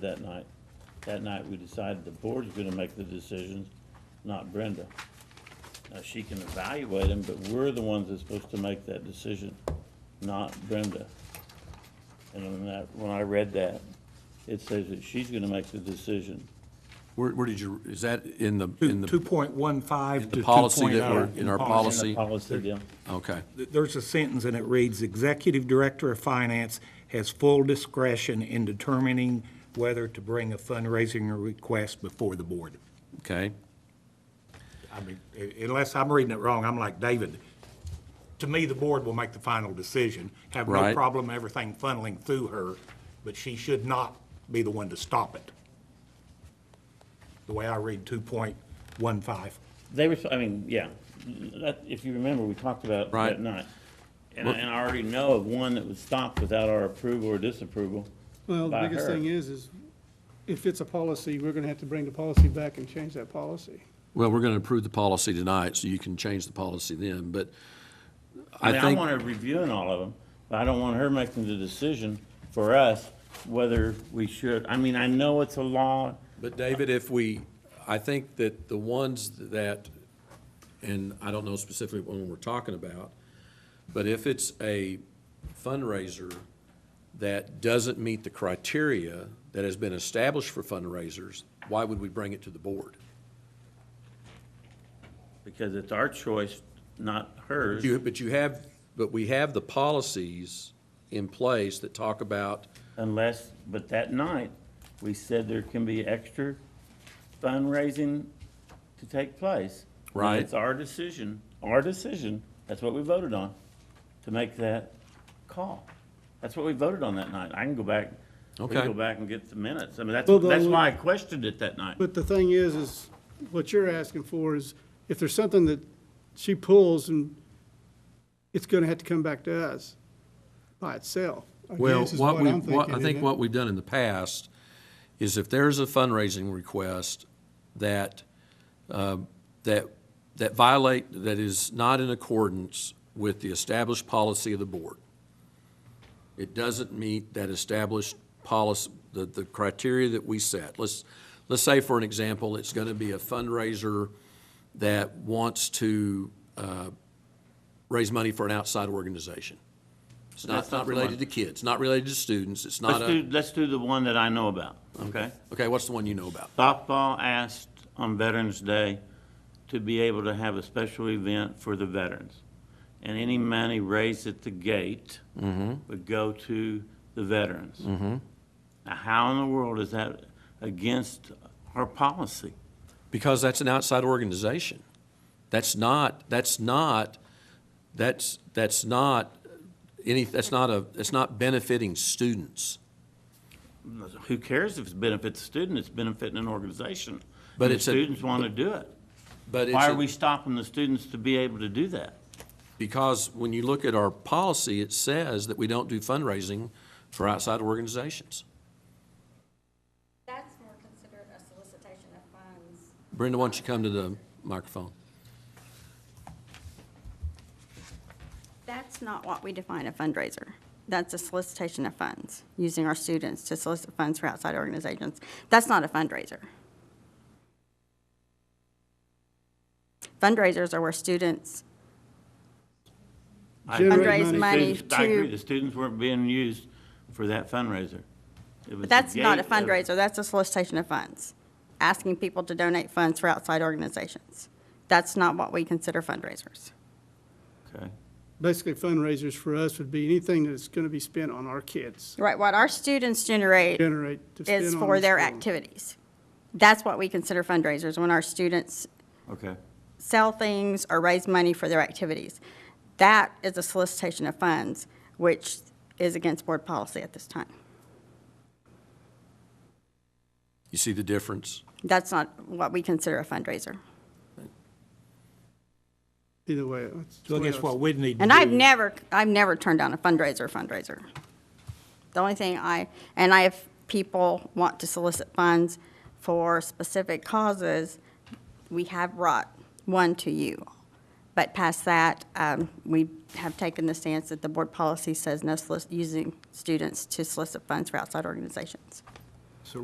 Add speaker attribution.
Speaker 1: that night. That night, we decided the board's gonna make the decisions, not Brenda. Now, she can evaluate them, but we're the ones that's supposed to make that decision, not Brenda. And when that, when I read that, it says that she's gonna make the decision.
Speaker 2: Where, where did you, is that in the, in
Speaker 3: Two
Speaker 2: the,
Speaker 3: point one five
Speaker 2: the
Speaker 3: to two oh
Speaker 2: policy that we're- in our
Speaker 1: In the
Speaker 2: policy?
Speaker 1: Policy deal.
Speaker 2: okay.
Speaker 3: There's a sentence and it reads, "Executive Director of Finance has full discretion in determining whether to bring a fundraising request before the board."
Speaker 2: Okay,
Speaker 3: I mean, i- unless I'm reading it wrong, I'm like David. To me, the board will make the final decision. Have no
Speaker 2: Right.
Speaker 3: problem everything funneling through her, but she should not be the one to stop it. The way I read two point one five.
Speaker 1: They were, I mean, yeah, that, if you remember, we talked about it
Speaker 2: Right.
Speaker 1: that night. And I, and I already know of one that was stopped without our approval or disapproval
Speaker 4: Well, the
Speaker 1: by
Speaker 4: biggest
Speaker 1: her.
Speaker 4: thing is, is if it's a policy, we're gonna have to bring the policy back and change that policy.
Speaker 2: well, we're going to approve the policy tonight, so you can change the policy then, but
Speaker 1: I
Speaker 2: I
Speaker 1: mean, I
Speaker 2: think,
Speaker 1: want her reviewing all of them, but I don't want her making the decision for us whether we should, I mean, I know it's a law,
Speaker 2: but David, if we, I think that the ones that, and I don't know specifically what one we're talking about, but if it's a fundraiser that doesn't meet the criteria that has been established for fundraisers, why would we bring it to the board?
Speaker 1: because it's our choice, not hers.
Speaker 2: You, but you have, but we have the policies in place that talk about,
Speaker 1: Unless, but that night, we said there can be extra fundraising to take place. And
Speaker 2: Right.
Speaker 1: It's our decision, our decision, that's what we voted on, to make that call. That's what we voted on that night. I can go back, we can
Speaker 2: Okay.
Speaker 1: go back and get the minutes. I mean, that's,
Speaker 4: Well, the-
Speaker 1: that's why I questioned it that night.
Speaker 4: But the thing is, is what you're asking for is if there's something that she pulls and it's gonna have to come back to us by itself. I
Speaker 2: well,
Speaker 4: guess is
Speaker 2: what we,
Speaker 4: I'm
Speaker 2: what, I
Speaker 4: thinking,
Speaker 2: think
Speaker 4: isn't it?
Speaker 2: what we've done in the past is if there's a fundraising request that, uh, that, that violate, that is not in accordance with the established policy of the board, it doesn't meet that established policy, the, the criteria that we set. Let's, let's say, for an example, it's going to be a fundraiser that wants to uh, raise money for an outside organization. It's not,
Speaker 1: That's not
Speaker 2: not
Speaker 1: the
Speaker 2: related
Speaker 1: one.
Speaker 2: to kids, not related to students, it's not
Speaker 1: Let's do,
Speaker 2: a,
Speaker 1: let's do the one that I know about, okay?
Speaker 2: okay, what's the one you know about?
Speaker 1: Softball asked on Veterans Day to be able to have a special event for the veterans. And any money raised at the gate
Speaker 2: Mm-hmm.
Speaker 1: would go to the veterans. Now, how in the world is that against our policy?
Speaker 2: Because that's an outside organization. That's not, that's not, that's, that's not any, that's not a, that's not benefiting students.
Speaker 1: Who cares if it benefits a student, it's benefiting an organization.
Speaker 2: But
Speaker 1: And the
Speaker 2: it's a-
Speaker 1: students want to do it.
Speaker 2: But it's
Speaker 1: Why
Speaker 2: a-
Speaker 1: are we stopping the students to be able to do that?
Speaker 2: Because when you look at our policy, it says that we don't do fundraising for outside organizations.
Speaker 5: That's more considered a solicitation of funds.
Speaker 2: Brenda, why don't you come to the microphone?
Speaker 5: That's not what we define a fundraiser. That's a solicitation of funds, using our students to solicit funds for outside organizations. That's not a fundraiser. Fundraisers are where students,
Speaker 1: I-
Speaker 4: Generate
Speaker 5: Fundraise money. money
Speaker 1: Students- I agree,
Speaker 5: to-
Speaker 1: the students weren't being used for that fundraiser. It was
Speaker 5: but that's
Speaker 1: the
Speaker 5: not a
Speaker 1: gate of-
Speaker 5: fundraiser, that's a solicitation of funds, asking people to donate funds for outside organizations. That's not what we consider fundraisers.
Speaker 1: Okay.
Speaker 4: Basically fundraisers for us would be anything that's gonna be spent on our kids,
Speaker 5: Right, what our students generate
Speaker 4: generate to spend
Speaker 5: is
Speaker 4: on
Speaker 5: for
Speaker 4: the
Speaker 5: their
Speaker 4: school.
Speaker 5: activities. That's what we consider fundraisers, when our students
Speaker 1: Okay.
Speaker 5: sell things or raise money for their activities. That is a solicitation of funds, which is against board policy at this time.
Speaker 2: You see the difference?
Speaker 5: That's not what we consider a fundraiser.
Speaker 4: Either way. that's
Speaker 3: So I
Speaker 4: the way
Speaker 3: guess
Speaker 4: was-
Speaker 3: what we'd need to do.
Speaker 5: And I've never, I've never turned down a fundraiser fundraiser. The only thing I, and I have people want to solicit funds for specific causes, we have brought one to you. But past that, um, we have taken the stance that the board policy says no solic- using students to solicit funds for outside organizations.